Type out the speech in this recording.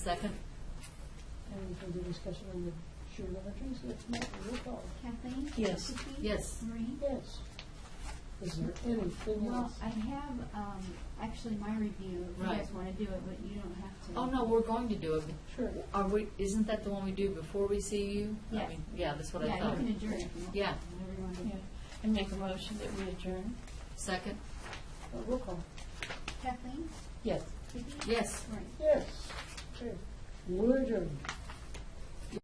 Second. Any further discussion on the shared ledgers? If not, roll call. Kathleen? Yes. Vicki? Yes. Marie? Yes. Is there anything Well, else? I have, um, actually my review, if you Right. guys want to do it, but you don't have to. Oh, no, we're going to do it. Sure. Uh, Are we, isn't that the one we do before we see you? I Yes. mean, Yeah, that's what I Yeah, thought. you can adjourn if you want. Yeah. Whatever you want to do. Yeah, And make a motion that we adjourn? Second. Uh, Roll call. Kathleen? Yes. Vicki? Yes. Marie? Yes. Okay. We're adjourned.